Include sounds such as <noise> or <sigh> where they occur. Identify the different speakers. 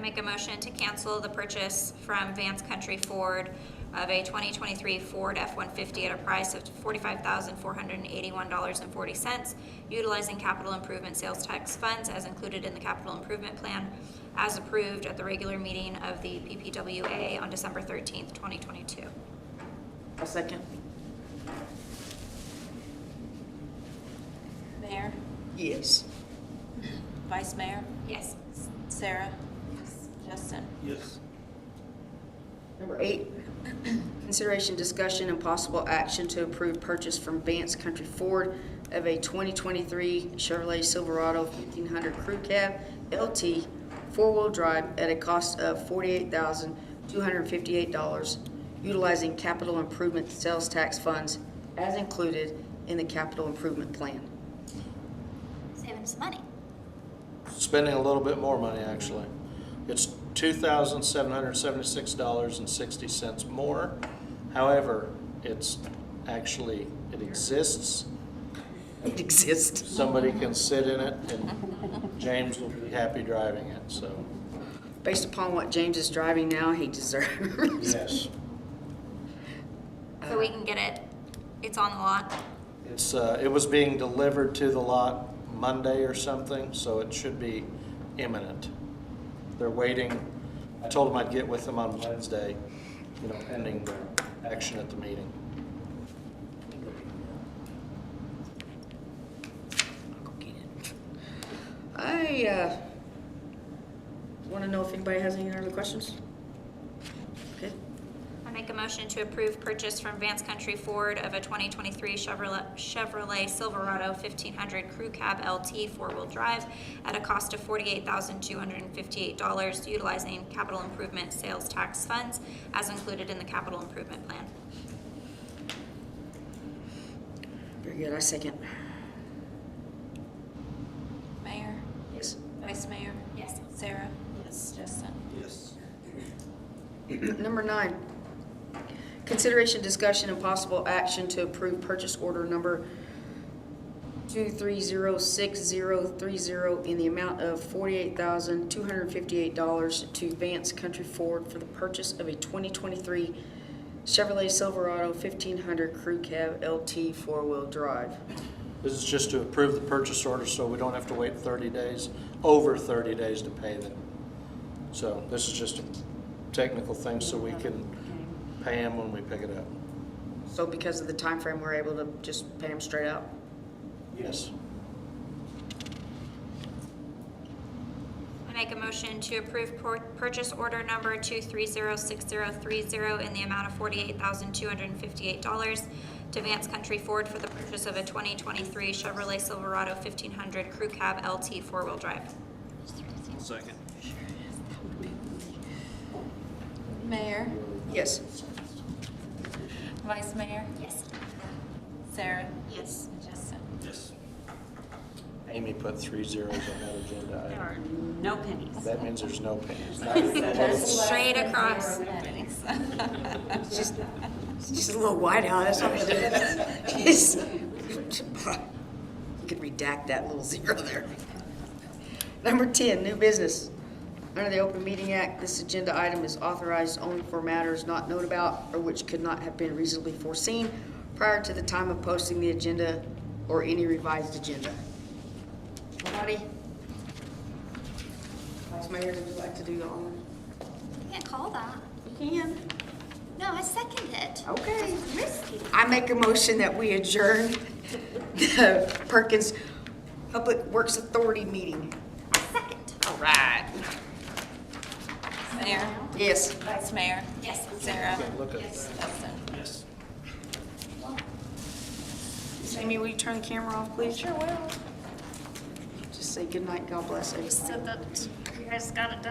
Speaker 1: make a motion to cancel the purchase from Vance Country Ford of a 2023 Ford F-150 at a price of $45,481.40, utilizing capital improvement sales tax funds as included in the capital improvement plan as approved at the regular meeting of the PPWA on December 13th, 2022.
Speaker 2: I'll second.
Speaker 3: Mayor,
Speaker 2: Yes.
Speaker 3: Vice Mayor,
Speaker 1: Yes.
Speaker 3: Sarah, Justin.
Speaker 4: Yes.
Speaker 2: Number eight, consideration, discussion, and possible action to approve purchase from Vance Country Ford of a 2023 Chevrolet Silverado 1500 Crew Cab LT four-wheel drive at a cost of $48,258, utilizing capital improvement sales tax funds as included in the capital improvement plan.
Speaker 1: Saving some money.
Speaker 4: Spending a little bit more money, actually. It's two thousand seven hundred seventy-six dollars and sixty cents more. However, it's actually, it exists.
Speaker 2: It exists.
Speaker 4: Somebody can sit in it and James will be happy driving it, so.
Speaker 2: Based upon what James is driving now, he deserves.
Speaker 4: Yes.
Speaker 1: So we can get it, it's on the lot.
Speaker 4: It's, uh, it was being delivered to the lot Monday or something, so it should be imminent. They're waiting. I told them I'd get with them on Wednesday, you know, pending their action at the meeting.
Speaker 2: I uh, want to know if anybody has any other questions? Okay.
Speaker 1: I make a motion to approve purchase from Vance Country Ford of a 2023 Chevrolet Chevrolet Silverado 1500 Crew Cab LT four-wheel drive at a cost of $48,258, utilizing capital improvement sales tax funds as included in the capital improvement plan.
Speaker 2: Very good. I second.
Speaker 3: Mayor,
Speaker 2: Yes.
Speaker 3: Vice Mayor,
Speaker 1: Yes.
Speaker 3: Sarah. Yes. Justin.
Speaker 4: Yes.
Speaker 2: Number nine, consideration, discussion, and possible action to approve purchase order number 2306030 in the amount of $48,258 to Vance Country Ford for the purchase of a 2023 Chevrolet Silverado 1500 Crew Cab LT four-wheel drive.
Speaker 4: This is just to approve the purchase order, so we don't have to wait thirty days, over thirty days to pay them. So this is just a technical thing, so we can pay them when we pick it up.
Speaker 2: So because of the time frame, we're able to just pay them straight out?
Speaker 4: Yes.
Speaker 1: I make a motion to approve pur- purchase order number 2306030 in the amount of $48,258 to Vance Country Ford for the purchase of a 2023 Chevrolet Silverado 1500 Crew Cab LT four-wheel drive.
Speaker 4: Second.
Speaker 3: Mayor,
Speaker 2: Yes.
Speaker 3: Vice Mayor,
Speaker 1: Yes.
Speaker 3: Sarah,
Speaker 1: Yes.
Speaker 3: Justin.
Speaker 4: Yes. Amy put three zeros on that agenda item.
Speaker 5: are no pennies.
Speaker 4: That means there's no pennies.
Speaker 1: Straight across.
Speaker 2: It's just, it's just a little white out, that's all it is. It's- You could redact that little zero there. Number ten, new business. Under the Open Meeting Act, this agenda item is authorized only for matters not known about or which could not have been reasonably foreseen prior to the time of posting the agenda or any revised agenda. Nobody? Vice Mayor, would you like to do the honor?
Speaker 1: You can't call that.
Speaker 2: You can.
Speaker 1: No, I second it.
Speaker 2: Okay.
Speaker 1: Risky.
Speaker 2: I make a motion that we adjourn the Perkins Public Works Authority meeting.
Speaker 1: Second.
Speaker 2: All right.
Speaker 3: <laughs> Mayor,
Speaker 2: Yes.
Speaker 3: Vice Mayor,
Speaker 1: Yes.
Speaker 3: Sarah,
Speaker 4: Look at that.
Speaker 3: Justin.
Speaker 4: Yes.
Speaker 2: Amy, will you turn the camera off, please? Sure will. Just say goodnight, God bless everybody.
Speaker 5: So that, you guys got it done.